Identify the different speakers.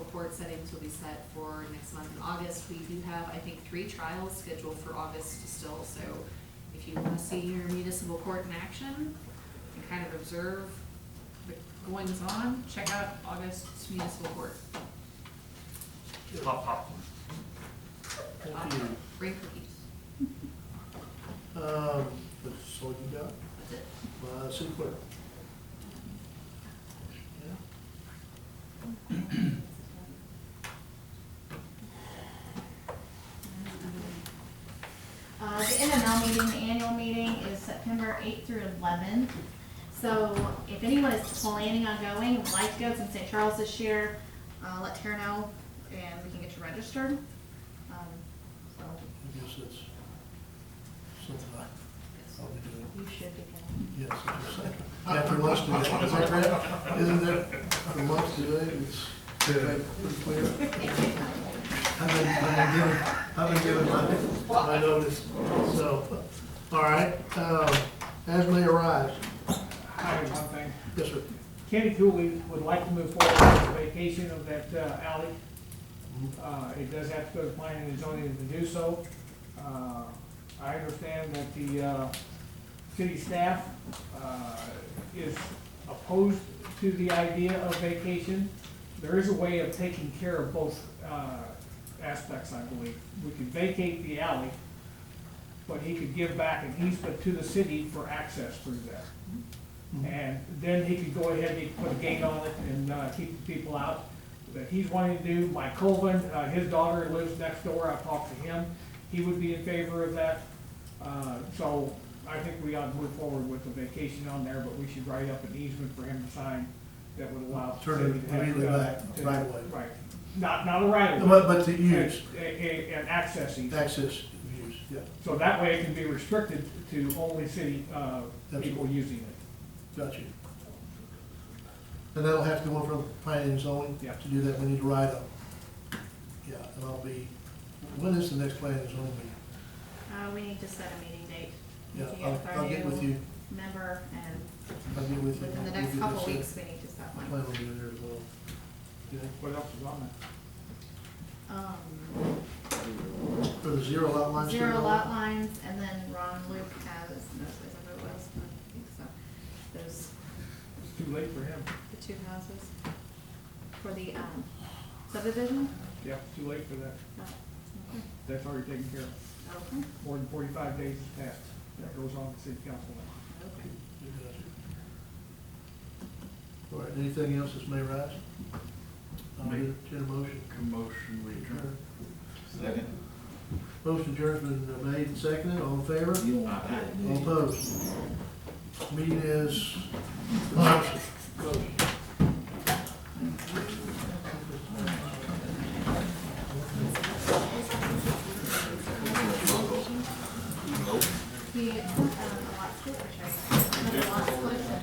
Speaker 1: board settings will be set for next month in August. We do have, I think, three trials scheduled for August still, so if you want to see your municipal court in action and kind of observe the goings-on, check out August's municipal court.
Speaker 2: Pop popcorn.
Speaker 3: Thank you.
Speaker 1: Bring cookies.
Speaker 3: Um, that's all you got?
Speaker 1: That's it.
Speaker 3: Uh, city clerk? Yeah?
Speaker 4: Uh, the NML meeting, the annual meeting is September eighth through eleven. So if anyone is planning on going, would like to go, it's in St. Charles this year, uh, let Tara know and we can get you registered. Um, so
Speaker 3: I guess that's something I
Speaker 4: yes,
Speaker 3: probably do.
Speaker 4: you should be going.
Speaker 3: Yes, it's a second. After lunch today, is that correct? Isn't that, after lunch today, it's, is that pretty clear? I've been, I've been given, I've been given my, my notice, so, all right. Um, as may arise,
Speaker 5: Hi, one thing.
Speaker 3: yes, sir.
Speaker 5: Kenny Cooley would like to move forward with the vacation of that uh, alley. Uh, It does have to go to planning and zoning to do so. Uh, I understand that the uh, city staff uh, is opposed to the idea of vacation. There is a way of taking care of both uh, aspects, I believe. We could vacate the alley, but he could give back an easement to the city for access through that.
Speaker 3: Mm-hmm.
Speaker 5: And then he could go ahead, he could put a gate on it and uh, keep the people out that he's wanting to do. Mike Colvin, uh, his daughter lives next door, I talked to him, he would be in favor of that. Uh, So I think we ought to move forward with the vacation on there, but we should write up an easement for him to sign that would allow. the
Speaker 3: Turn it
Speaker 5: city to have,
Speaker 3: immediately
Speaker 5: uh,
Speaker 3: back,
Speaker 5: to-
Speaker 3: right away.
Speaker 5: Right, not, not a right of way.
Speaker 3: But, but to use,
Speaker 5: A- a- An access easement.
Speaker 3: access, use, yeah,
Speaker 5: So that way it can be restricted to only city uh, people using it.
Speaker 3: got you. And that'll have to go from planning and zoning?
Speaker 5: Yeah.
Speaker 3: To do that, we need to write up. Yeah, and I'll be, when is the next planning and zoning meeting?
Speaker 4: Uh, we need to set a meeting date. We
Speaker 3: Yeah,
Speaker 4: need to
Speaker 3: I'll,
Speaker 4: our
Speaker 3: I'll get with
Speaker 4: new
Speaker 3: you,
Speaker 4: Member and
Speaker 3: I'll get with you.
Speaker 4: within the
Speaker 3: We'll
Speaker 4: next
Speaker 3: get
Speaker 4: couple
Speaker 3: this, uh,
Speaker 4: weeks, we need to set one.
Speaker 3: Plan will be there as well. Yeah.
Speaker 5: What else is on
Speaker 4: Um,
Speaker 3: For the zero lot line.
Speaker 4: Zero
Speaker 3: street
Speaker 4: lot lines, and then Ron Luke has, no, I don't know what else, but I think so, those,
Speaker 5: that? It's too late for him.
Speaker 4: the two houses for the um, subdivision?
Speaker 5: Yeah, too late for that.
Speaker 4: No.
Speaker 5: That's already taken care of.
Speaker 4: Okay, okay,
Speaker 5: More than forty-five days has passed. That goes on to city council.
Speaker 4: okay.
Speaker 3: All right, anything else that may rise? I'll
Speaker 6: Make-
Speaker 3: entertain a motion.
Speaker 6: Commotion, we adjourn.
Speaker 3: Motion adjournment has been made and seconded, all in favor? All opposed? Meeting is. Closed.